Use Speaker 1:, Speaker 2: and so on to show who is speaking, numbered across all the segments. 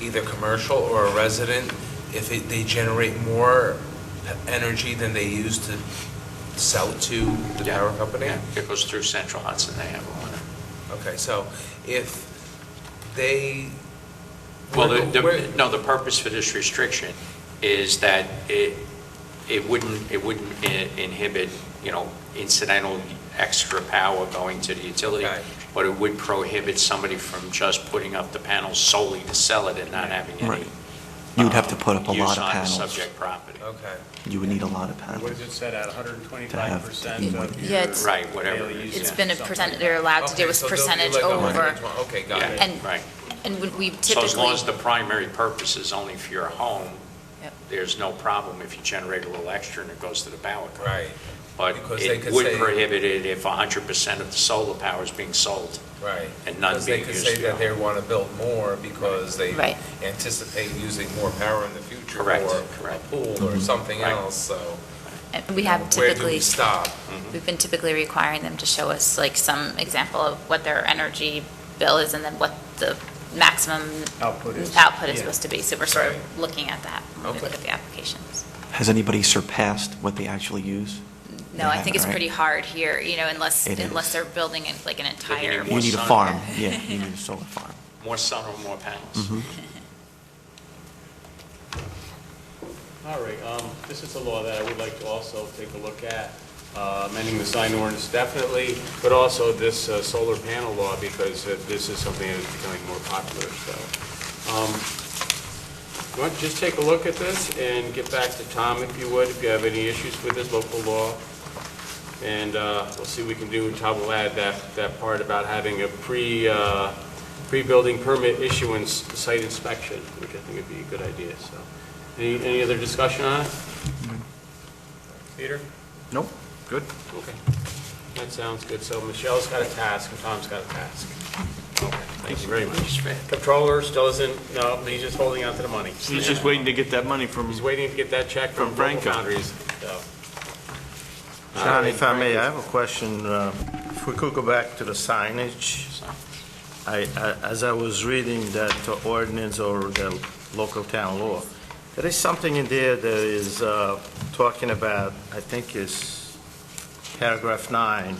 Speaker 1: either commercial or a resident, if it- they generate more energy than they use to sell it to the
Speaker 2: Yeah,
Speaker 1: power company?
Speaker 2: yeah, It goes through Central Hudson, they have one.
Speaker 1: Okay, so if they.
Speaker 2: Well, the-
Speaker 1: Where-
Speaker 2: the, no, the purpose for this restriction is that it, it wouldn't, it wouldn't i- inhibit, you know, incidental extra power going to the utility,
Speaker 1: Right.
Speaker 2: but it would prohibit somebody from just putting up the panels solely to sell it and not having any.
Speaker 3: Right. You would have to
Speaker 2: um,
Speaker 3: put up a
Speaker 2: use
Speaker 3: lot of
Speaker 2: on the
Speaker 3: panels.
Speaker 2: subject property.
Speaker 1: Okay.
Speaker 3: You would need a lot of
Speaker 4: What is
Speaker 3: panels.
Speaker 4: it set at,
Speaker 3: To have
Speaker 4: 125%
Speaker 3: to
Speaker 4: of
Speaker 3: be-
Speaker 4: your...
Speaker 5: Yeah, it's-
Speaker 2: Right, whatever
Speaker 4: daily
Speaker 2: it is,
Speaker 4: usage,
Speaker 5: It's
Speaker 2: Yeah.
Speaker 5: been a
Speaker 4: something
Speaker 5: percent,
Speaker 4: like
Speaker 5: they're allowed to
Speaker 1: Okay,
Speaker 5: do is
Speaker 1: so they'll do
Speaker 5: percentage
Speaker 1: like a
Speaker 5: over.
Speaker 1: 120 Okay, got it.
Speaker 2: Yeah,
Speaker 5: And-
Speaker 2: right.
Speaker 5: And when we
Speaker 2: So as long as
Speaker 5: typically,
Speaker 2: the primary purpose is only for your home,
Speaker 5: Yep.
Speaker 2: there's no problem if you generate a little extra and it goes to the power company.
Speaker 1: Right,
Speaker 2: But
Speaker 1: Because they
Speaker 2: it
Speaker 1: could
Speaker 2: would
Speaker 1: say-
Speaker 2: prohibit it if 100% of the solar power is being sold.
Speaker 1: right.
Speaker 2: And none
Speaker 1: Because they
Speaker 2: being
Speaker 1: could
Speaker 2: used
Speaker 1: say
Speaker 2: for-
Speaker 1: that they want to build more because they
Speaker 5: Right.
Speaker 1: anticipate using more power in the future.
Speaker 2: Correct,
Speaker 1: Or a
Speaker 2: correct. Mm-hmm.
Speaker 1: pool or something
Speaker 2: Right.
Speaker 1: else, so.
Speaker 5: and we have
Speaker 1: Where do we mm-hmm.
Speaker 5: typically,
Speaker 1: stop?
Speaker 5: we've been typically requiring them to show us like some example of what their energy bill is and then what the maximum
Speaker 4: Output is.
Speaker 5: output is
Speaker 4: Yeah.
Speaker 5: supposed to be. So we're sort
Speaker 1: Right.
Speaker 5: of looking at that when we
Speaker 1: Okay.
Speaker 5: look at the applications.
Speaker 3: Has anybody surpassed what they actually use?
Speaker 5: No, I think it's
Speaker 3: Right.
Speaker 5: pretty hard here, you know, unless,
Speaker 3: It
Speaker 5: unless
Speaker 3: is.
Speaker 5: they're building in, like an entire.
Speaker 3: You
Speaker 2: More
Speaker 3: need a
Speaker 2: sun.
Speaker 3: farm, yeah, you need a solar farm.
Speaker 2: More sun or more panels.
Speaker 3: Mhm.
Speaker 6: All right, um, this is a law that I would like to also take a look at, uh, amending the sign ordinance definitely, but also this uh, solar panel law, because uh, this is something that is becoming more popular, so. um, you want to Just take a look at this and get back to Tom, if you would, if you have any issues with this local law. And uh, we'll see what we can do, and Tom will add that, that part about having a pre, uh, pre-building permit issuance site inspection, which I think would be a good idea, so. Any, any other discussion on it? Peter?
Speaker 3: Nope, good.
Speaker 6: Okay. That sounds good. So Michelle's got a task and Tom's got a task. Thank you very much. Controller still isn't, no, he's just holding on to the money.
Speaker 7: He's just waiting to get that money from
Speaker 6: He's waiting to get that check from Global
Speaker 7: From Franco.
Speaker 6: Foundries. so.
Speaker 8: John, if I may, I have a question. uh, If we could go back to the signage. I, I- as I was reading that ordinance or the local town law, there is something in there that is uh, talking about, I think is paragraph nine.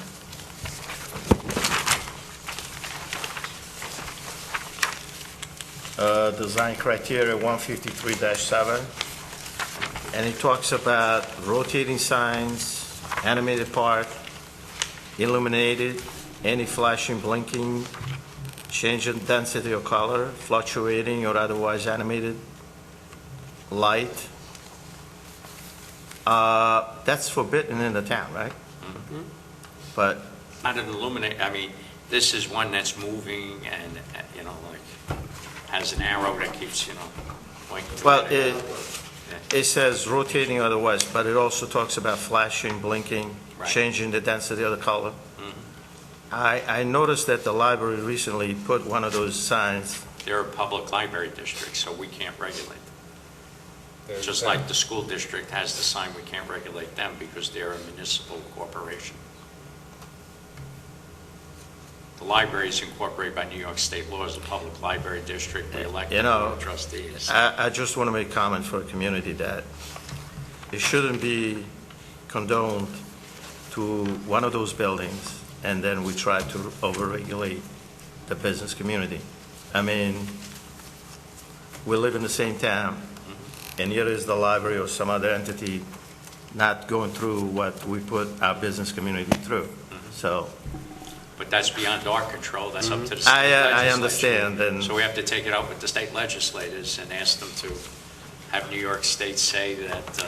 Speaker 8: Uh, Design criteria 153-7. And it talks about rotating signs, animated part, illuminated, any flashing, blinking, change in density or color, fluctuating or otherwise animated, light. Uh, That's forbidden in the town, right? But
Speaker 2: Not an illuminate, I mean, this is one that's moving and, uh, you know, like, has an arrow that keeps, you know, pointing. to
Speaker 8: Well,
Speaker 2: it.
Speaker 8: it- it says rotating or otherwise, but it also talks about flashing, blinking,
Speaker 2: Right.
Speaker 8: changing the density of the color.
Speaker 2: Mhm.
Speaker 8: I, I noticed that the library recently put one of those signs,
Speaker 2: They're a public library district, so we can't regulate.
Speaker 1: There's
Speaker 2: Just
Speaker 1: that.
Speaker 2: like the school district has the sign, we can't regulate them because they're a municipal corporation. The library is incorporated by New York state law as a public library district, we elect
Speaker 8: You
Speaker 2: the
Speaker 8: know,
Speaker 2: board of trustees.
Speaker 8: I, I just want to make comment for the community that it shouldn't be condoned to one of those buildings, and then we try to overregulate the business community. I mean, we live in the same town, and here is the library or some other entity not going through what we put our business community through. So,
Speaker 2: But that's beyond our control, that's up to the state
Speaker 8: I, uh, I
Speaker 2: legislature.
Speaker 8: understand, and
Speaker 2: So we have to take it up with the state legislators and ask them to have New York State say that uh,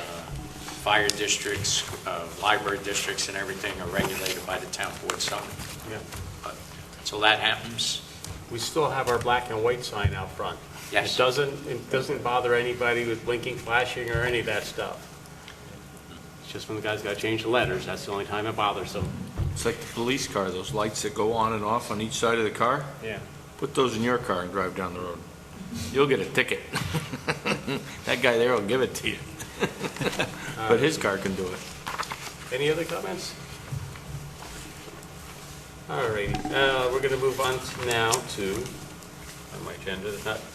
Speaker 2: fire districts, uh, library districts and everything are regulated by the town board zoning.
Speaker 6: Yeah.
Speaker 2: But- So that happens,
Speaker 6: We still have our black and white sign out front. It
Speaker 2: yes.
Speaker 6: doesn't, it doesn't bother anybody with blinking, flashing, or any of that stuff. It's just when the guys got to change the letters, that's the only time it bothers them.
Speaker 7: It's like the police car, those lights that go on and off on each side of the car.
Speaker 6: Yeah.
Speaker 7: Put those in your car and drive down the road. You'll get a ticket. That guy there will give it to you. But his car can do it.
Speaker 6: Any other comments? All righty, uh, we're going to move on to now to, on my agenda, not